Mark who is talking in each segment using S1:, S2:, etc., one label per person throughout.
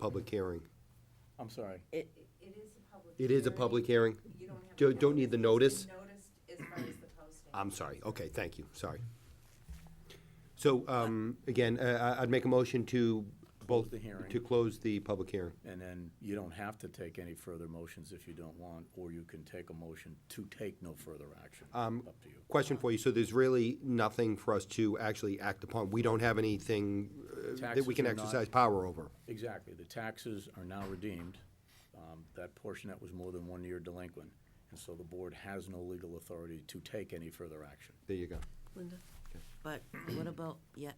S1: public hearing.
S2: I'm sorry.
S3: It,
S4: It is a public.
S1: It is a
S4: hearing.
S1: public hearing?
S4: You don't have.
S1: Don't- don't need the notice?
S4: It's been Noticed as far as the posting.
S1: I'm sorry, okay, thank you, sorry. So, um, again, uh, I- I'd make a motion to both.
S2: Close the hearing.
S1: To close the public hearing.
S2: And then you don't have to take any further motions if you don't want, or you can take a motion to take no further action.
S3: Um,
S2: Up to you.
S1: Question for you, so there's really nothing for us to actually act upon? We don't have anything uh, that we
S2: Taxes
S1: can
S2: are not-
S1: exercise power over?
S2: Exactly. The taxes are now redeemed, um, that portion that was more than one year delinquent. And so the board has no legal authority to take any further action.
S1: There you go.
S3: Linda, but what about, yeah.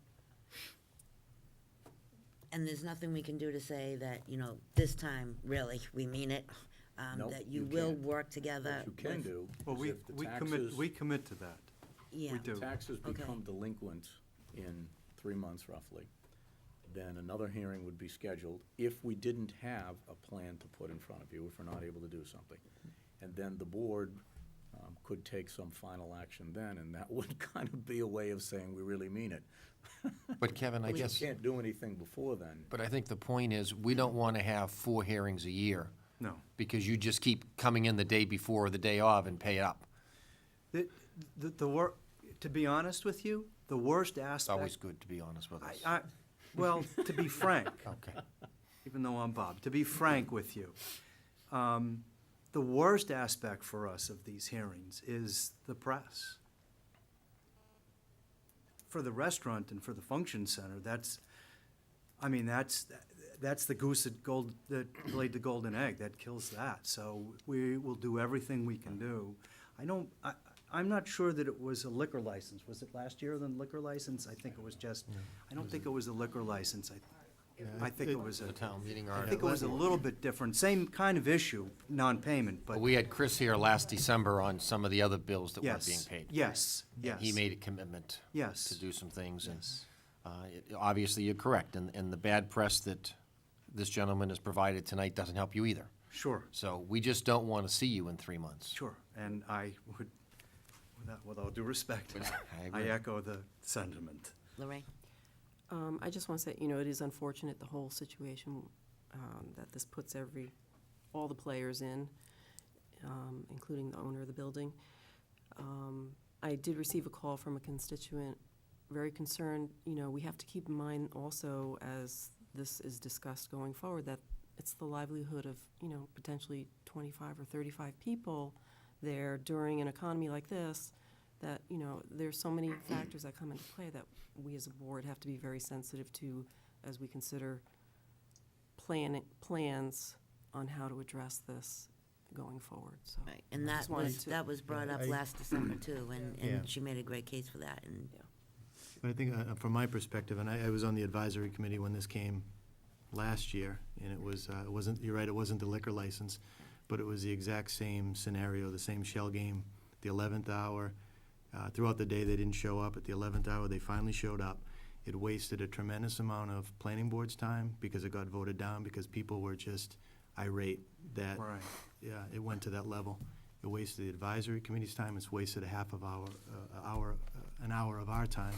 S3: And there's nothing we can do to say that, you know, this time, really, we mean it, um,
S2: Nope,
S3: that
S2: you
S3: you will
S2: can't.
S3: work together.
S2: What you can
S3: with-
S2: do
S5: Well,
S2: is
S5: we,
S2: if the
S5: we commit,
S2: taxes,
S5: we commit to that.
S3: Yeah.
S5: do.
S2: taxes
S3: Okay.
S2: become delinquent in three months roughly, then another hearing would be scheduled if we didn't have a plan to put in front of you, if we're not able to do something. And then the board um, could take some final action then, and that would kind of be a way of saying, we really mean it.
S6: But Kevin, I
S2: You
S6: guess,
S2: can't do anything before then.
S6: but I think the point is, we don't want to have four hearings a year.
S5: No.
S6: Because you just keep coming in the day before or the day of and pay up.
S5: The, the, the wor, to be honest with you, the worst
S6: It's always
S5: aspect.
S6: good to be honest with us.
S5: I, I, well, to be frank,
S6: Okay.
S5: even though I'm Bob, to be frank with you, um, the worst aspect for us of these hearings is the press. For the restaurant and for the function center, that's, I mean, that's, that's the goose that gold, that laid the golden egg, that kills that. So we will do everything we can do. I don't, I, I'm not sure that it was a liquor license. Was it last year, the liquor license? I think it was just, I don't think it was a liquor license. I, I think it was a.
S6: The town meeting
S5: I think it was a
S6: article.
S5: little bit different, same kind of issue, non-payment, but
S6: Oh, We had Chris here last December on some of the other bills that weren't being
S5: yes,
S6: paid.
S5: yes, yes.
S6: And He made a commitment.
S5: Yes.
S6: To do some things, and,
S5: Yes.
S6: uh, it- obviously, you're correct, and, and the bad press that this gentleman has provided tonight doesn't help you either.
S5: Sure,
S6: So we just don't want to see you in three months.
S5: sure, and I would, without, with all due respect,
S6: I
S5: I
S6: agree.
S5: echo the sentiment.
S3: Lorraine?
S7: Um, I just want to say, you know, it is unfortunate, the whole situation, um, that this puts every, all the players in, um, including the owner of the building. Um, I did receive a call from a constituent, very concerned, you know, we have to keep in mind also, as this is discussed going forward, that it's the livelihood of, you know, potentially twenty-five or thirty-five people there during an economy like this, that, you know, there's so many factors that come into play that we as a board have to be very sensitive to as we consider planning, plans on how to address this going forward, so.
S3: Right, and that
S7: Just wanted
S3: was,
S7: to-
S3: that was brought up
S8: I-
S3: last December too, and,
S8: Yeah.
S3: and she made a great case for that, and
S8: But I think, uh, from my perspective, and I, I was on the advisory committee when this came last year, and it was, uh, it wasn't, you're right, it wasn't the liquor license, but it was the exact same scenario, the same shell game, the eleventh hour. Uh, throughout the day, they didn't show up. At the eleventh hour, they finally showed up. It wasted a tremendous amount of planning board's time because it got voted down, because people were just irate that
S5: Right.
S8: yeah, it went to that level. It wasted the advisory committee's time, it's wasted a half of our, uh, hour, uh, an hour of our time.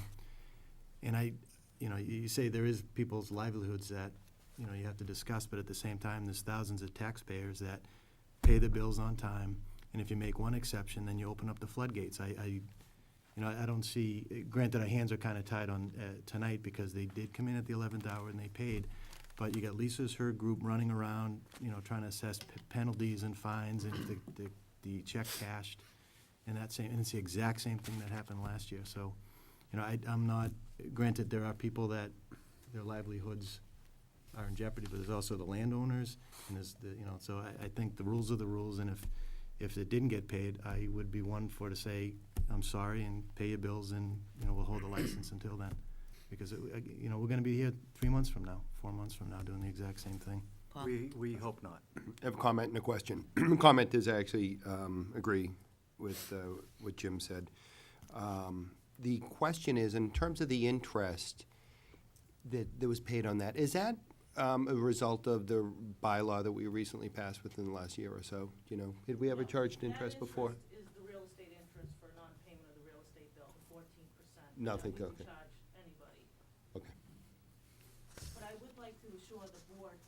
S8: And I, you know, you you say there is people's livelihoods that, you know, you have to discuss, but at the same time, there's thousands of taxpayers that pay the bills on time, and if you make one exception, then you open up the floodgates. I, I, you know, I don't see, granted, our hands are kind of tied on, uh, tonight, because they did come in at the eleventh hour and they paid, but you got Lisa's, her group running around, you know, trying to assess p- penalties and fines and the, the, the check cashed. And that same, and it's the exact same thing that happened last year, so, you know, I, I'm not, granted, there are people that, their livelihoods are in jeopardy, but there's also the landowners, and there's the, you know, so I, I think the rules are the rules, and if, if it didn't get paid, I would be one for to say, I'm sorry, and pay your bills, and, you know, we'll hold the license until then. Because, it- uh, you know, we're gonna be here three months from now, four months from now, doing the exact same thing.
S3: Paul?
S5: We, we hope not.
S1: I have a comment and a question. Comment is I actually um, agree with uh, what Jim said. Um, The question is, in terms of the interest that that was paid on that, is that um, a result of the bylaw that we recently passed within the last year or so? You know, had we ever charged interest before?
S9: That interest is the real estate interest for non-payment of the real estate bill, the fourteen percent.
S1: Nothing, okay.
S9: That we would charge anybody.
S1: Okay.
S9: But I would like to assure the board